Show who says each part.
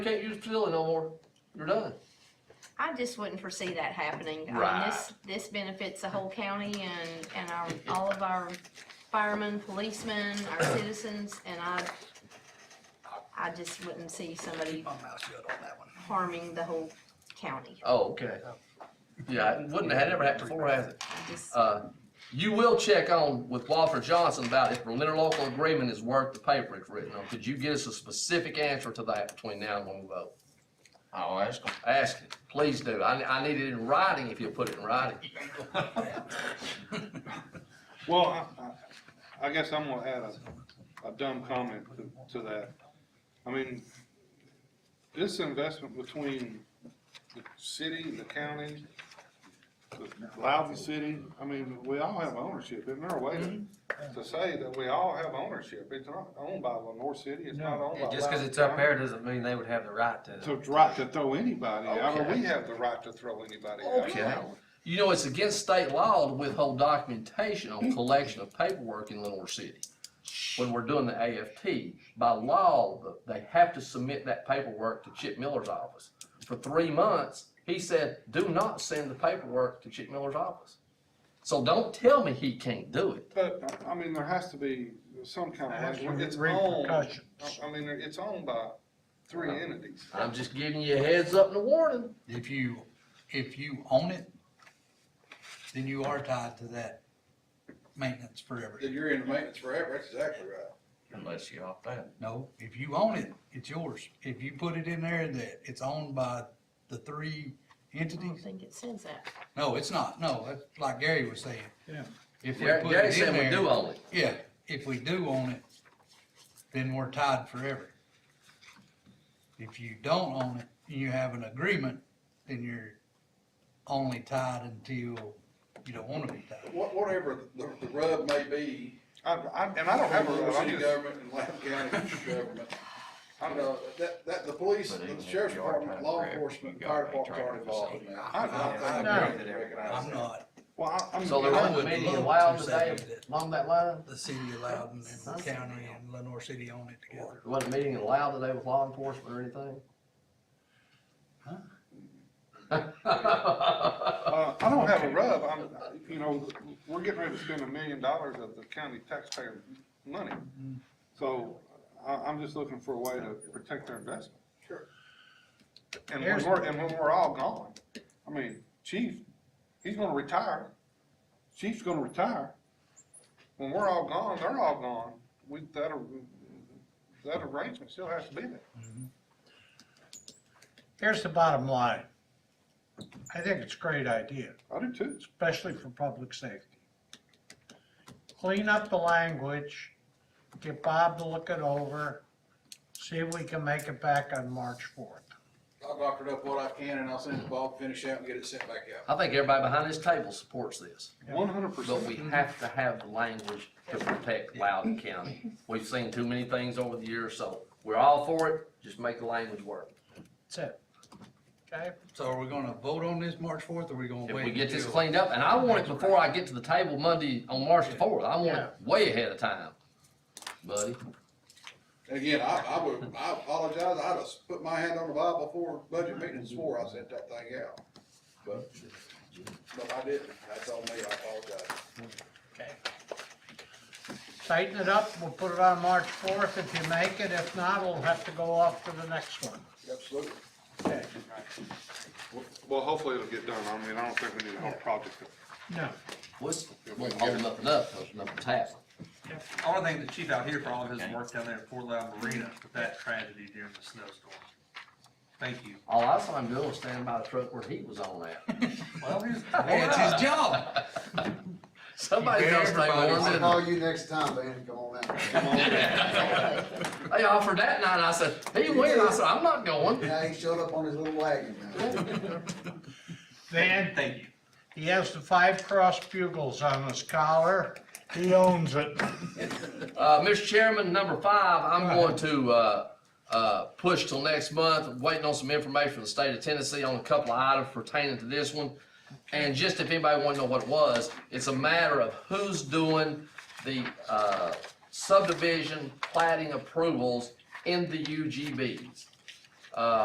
Speaker 1: You can't use the facility no more. You're done.
Speaker 2: I just wouldn't foresee that happening. I mean,
Speaker 1: Right.
Speaker 2: this, this benefits the whole county and, and our, all of our firemen, policemen, our citizens, and I, I just wouldn't see somebody
Speaker 3: My mouth shut on that one.
Speaker 2: harming the whole county.
Speaker 1: Oh, okay. Yeah, it wouldn't have never happened before, has it?
Speaker 2: I just,
Speaker 1: Uh, you will check on with Walter Johnson about if the interlocal agreement is worth the paper it's written on. Could you get us a specific answer to that between now and when we vote?
Speaker 4: I'll ask them.
Speaker 1: Ask it. Please do. I, I need it in writing if you'll put it in writing.
Speaker 5: Well, I, I, I guess I'm gonna add a, a dumb comment to, to that. I mean, this investment between the city, the county, the Loudon City, I mean, we all have ownership. Isn't there a way to,
Speaker 1: Mm-hmm.
Speaker 5: to say that we all have ownership? It's not owned by Lenore City, it's not owned by
Speaker 6: Yeah, just because
Speaker 5: Loudoun
Speaker 6: it's up
Speaker 5: County.
Speaker 6: there doesn't mean they would have the right to.
Speaker 5: To right to throw anybody out, or
Speaker 1: Okay.
Speaker 5: we have the right to throw anybody out.
Speaker 1: Okay. You know, it's against state law to withhold documentation on collection of paperwork in Lenore City. When we're doing the AFT, by law, the- they have to submit that paperwork to Chip Miller's office. For three months, he said, do not send the paperwork to Chip Miller's office. So don't tell me he can't do it.
Speaker 5: But, I mean, there has to be some kind
Speaker 3: There has
Speaker 5: of,
Speaker 3: to be
Speaker 5: it's owned, I
Speaker 3: repercussions.
Speaker 5: I mean, it's owned by three entities.
Speaker 1: I'm just giving you a heads up and a warning.
Speaker 4: If you, if you own it, then you are tied to that maintenance forever.
Speaker 7: Then you're in maintenance forever, that's exactly right.
Speaker 4: Unless you opt out. No, if you own it, it's yours. If you put it in there that it's owned by the three
Speaker 2: I don't
Speaker 4: entities,
Speaker 2: think it says that.
Speaker 4: no, it's not. No, that's like Gary was saying.
Speaker 3: Yeah.
Speaker 4: If we
Speaker 1: Gary
Speaker 4: put
Speaker 1: Gary
Speaker 4: it in
Speaker 1: said we do
Speaker 4: there,
Speaker 1: own it.
Speaker 4: yeah, if we do own it, then we're tied forever. If you don't own it, and you have an agreement, then you're only tied until you don't wanna be tied.
Speaker 7: What, whatever the, the rub may be,
Speaker 5: I, I, and I don't have a,
Speaker 7: the
Speaker 5: I'm
Speaker 7: city
Speaker 5: just,
Speaker 7: government and Loudoun County government, you know, that, that, the police,
Speaker 8: But
Speaker 7: the
Speaker 8: even if
Speaker 7: sheriff's
Speaker 8: you are
Speaker 7: department,
Speaker 8: tied
Speaker 7: law
Speaker 8: forever,
Speaker 7: enforcement,
Speaker 8: you
Speaker 7: fire
Speaker 8: gotta make
Speaker 7: departments are
Speaker 8: charges.
Speaker 7: involved in that.
Speaker 4: I-
Speaker 7: think
Speaker 4: I- I
Speaker 7: we
Speaker 4: agree
Speaker 7: need to recognize
Speaker 4: I'm
Speaker 7: that.
Speaker 4: not,
Speaker 5: well, I- I'm.
Speaker 1: So there
Speaker 4: I
Speaker 1: wasn't a
Speaker 4: would
Speaker 1: meeting in
Speaker 4: love
Speaker 1: Wild
Speaker 4: to
Speaker 1: today
Speaker 4: say that-
Speaker 1: along that line?
Speaker 4: the city of Loudon and the county and Lenore City own it together.
Speaker 1: There wasn't a meeting in Loud today with law enforcement or anything?
Speaker 5: Uh, I don't have a rub, I'm, you know, we're getting ready to spend a million dollars of the county taxpayer money. So, I, I'm just looking for a way to protect their investment.
Speaker 7: Sure.
Speaker 5: And when we're, and when we're all gone, I mean, chief, he's gonna retire, chief's gonna retire. When we're all gone, they're all gone, we, that, ar- that arrangement still has to be there.
Speaker 3: Here's the bottom line. I think it's a great idea,
Speaker 5: I do too.
Speaker 3: especially for public safety. Clean up the language, get Bob to look it over, see if we can make it back on March fourth.
Speaker 7: I'll doctor up what I can and I'll send it to Bob, finish out and get it sent back out.
Speaker 1: I think everybody behind this table supports this,
Speaker 5: One hundred
Speaker 1: but we
Speaker 5: percent.
Speaker 1: have to have the language to protect Loudoun County. We've seen too many things over the years, so we're all for it, just make the language work.
Speaker 3: That's it. Okay?
Speaker 4: So are we gonna vote on this March fourth, or are we gonna
Speaker 1: If
Speaker 4: wait?
Speaker 1: we get this
Speaker 4: until-
Speaker 1: cleaned up, and I want it before I get to the table Monday on March the fourth, I want it way ahead of time, buddy.
Speaker 7: And again, I, I would, I apologize, I'd have put my hand on the Bible before budget meeting swore I sent that thing out. But, but I didn't, that's on me, I apologize.
Speaker 3: Tighten it up, we'll put it on March fourth if you make it, if not, we'll have to go off to the next one.
Speaker 7: Absolutely.
Speaker 3: Okay.
Speaker 5: Well, hopefully it'll get done, I mean, I don't think we need a whole project to
Speaker 3: No.
Speaker 1: What's, won't hold nothing up, 'cause nothing's happening.
Speaker 9: Only thing that chief out here for all of his work down there at Fort Loud Marina with that tragedy during the snowstorm. Thank you.
Speaker 1: All I saw him doing was standing by the truck where he was on that.
Speaker 9: Well, he's.
Speaker 4: Hey, it's his job.
Speaker 1: Somebody's gonna stay warm,
Speaker 4: Everybody's in
Speaker 1: isn't
Speaker 4: it.
Speaker 1: it?
Speaker 10: Call you next time, man, come on out.
Speaker 5: come on.
Speaker 1: They offered that night, and I said, he went, I said, I'm not going.
Speaker 10: Now he showed up on his little wagon now.
Speaker 3: Van,
Speaker 9: Thank you.
Speaker 3: he has the five cross bugles on his collar. He owns it.
Speaker 1: Uh, Mr. Chairman, number five, I'm going to, uh, uh, push till next month, waiting on some information from the state of Tennessee on a couple of items pertaining to this one. And just if anybody wanna know what it was, it's a matter of who's doing the, uh, subdivision plating approvals in the UGBs. Uh,